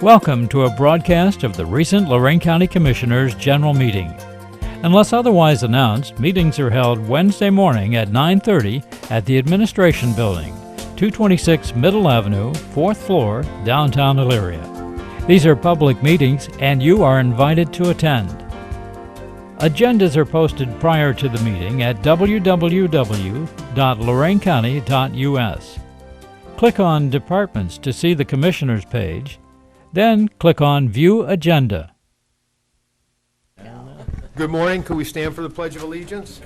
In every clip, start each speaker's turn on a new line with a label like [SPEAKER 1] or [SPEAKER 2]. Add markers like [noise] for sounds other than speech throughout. [SPEAKER 1] Welcome to a broadcast of the recent Lorraine County Commissioners' General Meeting. Unless otherwise announced, meetings are held Wednesday morning at 9:30 at the Administration Building, 226 Middle Avenue, 4th floor, downtown Elyria. These are public meetings and you are invited to attend. Agendas are posted prior to the meeting at www.loraincounty.us. Click on Departments to see the Commissioners page, then click on View Agenda.
[SPEAKER 2] Good morning, could we stand for the Pledge of Allegiance?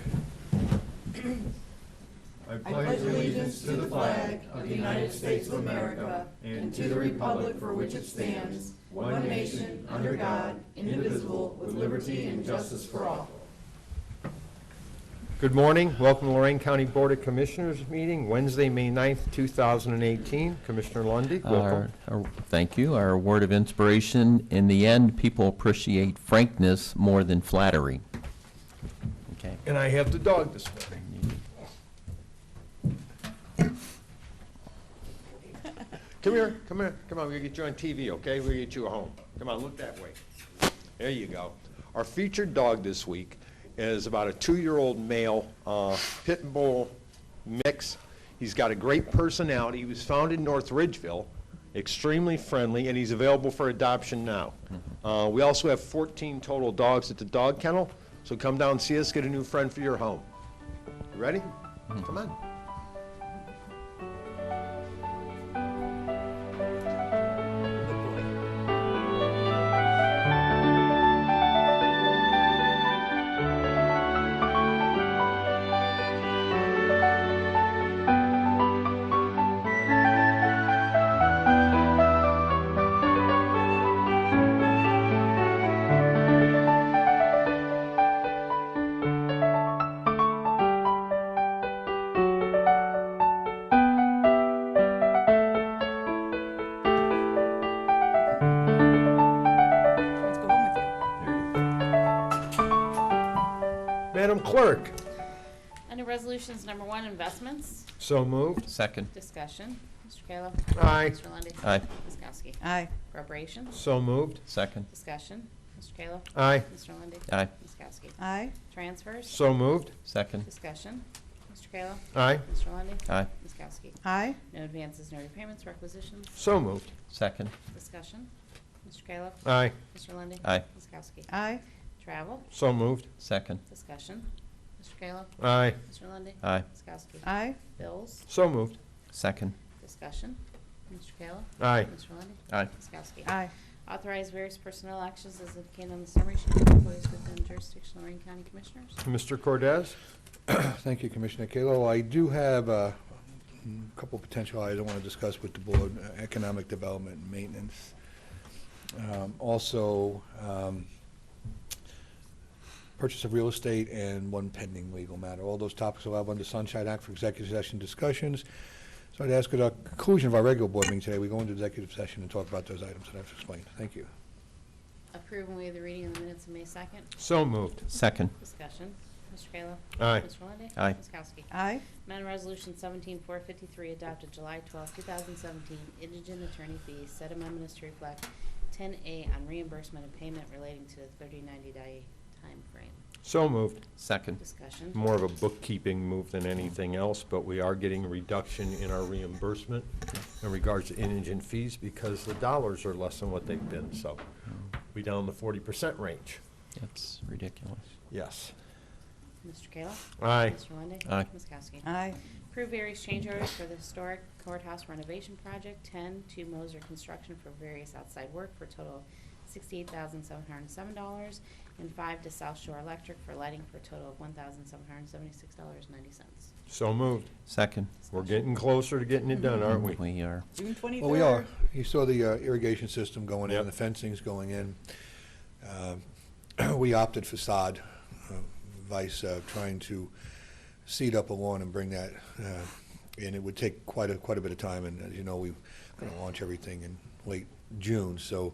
[SPEAKER 2] Good morning, welcome to Lorraine County Board of Commissioners meeting, Wednesday, May 9th, 2018. Commissioner Lundy,
[SPEAKER 3] Our,
[SPEAKER 2] welcome.
[SPEAKER 3] our- thank you. Our word of inspiration, in the end, people appreciate frankness more than flattery. Okay.
[SPEAKER 2] And I have the dog this morning. Come here, come here, come on, we'll get you on TV, okay? We'll get you a home. Come on, look that way. There you go. Our featured dog this week is about a two-year-old male uh, pit and bull mix. He's got a great personality. He was found in North Ridgeville, extremely friendly, and he's available for adoption now. Uh, We also have 14 total dogs at the dog kennel, so come down and see us, get a new friend for your home. You Ready? Come on.
[SPEAKER 4] Let's go home with you.
[SPEAKER 2] Madam Clerk,
[SPEAKER 5] Under Resolutions Number One, Investments,
[SPEAKER 2] so moved.
[SPEAKER 3] Second.
[SPEAKER 5] Discussion. Mr. Kayla.
[SPEAKER 2] Aye,
[SPEAKER 5] Mr. Lundy.
[SPEAKER 3] Aye.
[SPEAKER 5] Ms. Kowski.
[SPEAKER 4] Aye,
[SPEAKER 5] Appropriations,
[SPEAKER 2] so moved.
[SPEAKER 3] Second.
[SPEAKER 5] Discussion. Mr. Kayla.
[SPEAKER 2] Aye,
[SPEAKER 5] Mr. Lundy.
[SPEAKER 3] Aye.
[SPEAKER 5] Ms. Kowski.
[SPEAKER 4] aye,
[SPEAKER 5] Transfers,
[SPEAKER 2] so moved.
[SPEAKER 3] Second.
[SPEAKER 5] Discussion. Mr. Kayla.
[SPEAKER 2] Aye,
[SPEAKER 5] Mr. Lundy.
[SPEAKER 3] Aye.
[SPEAKER 5] Ms. Kowski.
[SPEAKER 4] aye,
[SPEAKER 5] No advances, no repayments, requisitions,
[SPEAKER 2] so moved.
[SPEAKER 3] Second.
[SPEAKER 5] Discussion. Mr. Kayla.
[SPEAKER 2] Aye,
[SPEAKER 5] Mr. Lundy.
[SPEAKER 3] Aye.
[SPEAKER 5] Ms. Kowski.
[SPEAKER 4] aye,
[SPEAKER 5] Travel,
[SPEAKER 2] so moved.
[SPEAKER 3] Second.
[SPEAKER 5] Discussion. Mr. Kayla.
[SPEAKER 2] Aye,
[SPEAKER 5] Mr. Lundy.
[SPEAKER 3] Aye.
[SPEAKER 5] Ms. Kowski.
[SPEAKER 4] aye,
[SPEAKER 5] Bills,
[SPEAKER 2] so moved.
[SPEAKER 3] Second.
[SPEAKER 5] Discussion. Mr. Kayla.
[SPEAKER 2] Aye,
[SPEAKER 5] Mr. Lundy.
[SPEAKER 3] Aye.
[SPEAKER 5] Ms. Kowski.
[SPEAKER 4] aye,
[SPEAKER 5] Authorize various personnel actions as indicated on the summary sheet for employees within jurisdiction of Lorraine County Commissioners.
[SPEAKER 2] Mr. Cordez?
[SPEAKER 6] [clears throat] Thank you, Commissioner Kalo. I do have uh, a couple of potential items I want to discuss with the board, uh, economic development and maintenance. Um, Also, um, purchase of real estate and one pending legal matter. All those topics will have under Sunshine Act for executive session discussions. So I'd ask at our conclusion of our regular board meeting today, we go into executive session and talk about those items that I've explained. Thank you.
[SPEAKER 5] Approve and waive the reading of the minutes of May 2nd.
[SPEAKER 2] So moved.
[SPEAKER 3] Second.
[SPEAKER 5] Discussion. Mr. Kayla.
[SPEAKER 2] Aye,
[SPEAKER 5] Mr. Lundey.
[SPEAKER 3] Aye.
[SPEAKER 5] Ms. Kowski.
[SPEAKER 4] aye,
[SPEAKER 5] Amendment Resolution 17453 adopted July 12, 2017, indigent attorney fees. Said amendment is to reflect 10A on reimbursement of payment relating to the 3090 day time frame.
[SPEAKER 2] so moved.
[SPEAKER 3] Second.
[SPEAKER 5] Discussion.
[SPEAKER 2] More of a bookkeeping move than anything else, but we are getting a reduction in our reimbursement in regards to indigent fees because the dollars are less than what they've been, so we down the forty percent range.
[SPEAKER 3] That's ridiculous.
[SPEAKER 2] Yes.
[SPEAKER 5] Mr. Kayla.
[SPEAKER 2] Aye,
[SPEAKER 5] Mr. Lundey.
[SPEAKER 3] Aye.
[SPEAKER 5] Ms. Kowski.
[SPEAKER 4] aye,
[SPEAKER 5] Approve various change orders for the historic courthouse renovation project, 10 to Moser Construction for various outside work for a total of $68,707, and 5 to South Shore Electric for lighting for a total of $1,776.90.
[SPEAKER 2] so moved.
[SPEAKER 3] Second.
[SPEAKER 2] We're getting closer to getting it done, aren't we?
[SPEAKER 3] We are,
[SPEAKER 4] June twenty-third.
[SPEAKER 6] Well, we are. You saw the uh, irrigation system going
[SPEAKER 2] Yep.
[SPEAKER 6] in, the fencing's going in. Um, [clears throat] We opted for sod, uh, vice uh, trying to seed up a lawn and bring that, uh, and it would take quite a, quite a bit of time, and as you know, we're going to launch everything in late June, so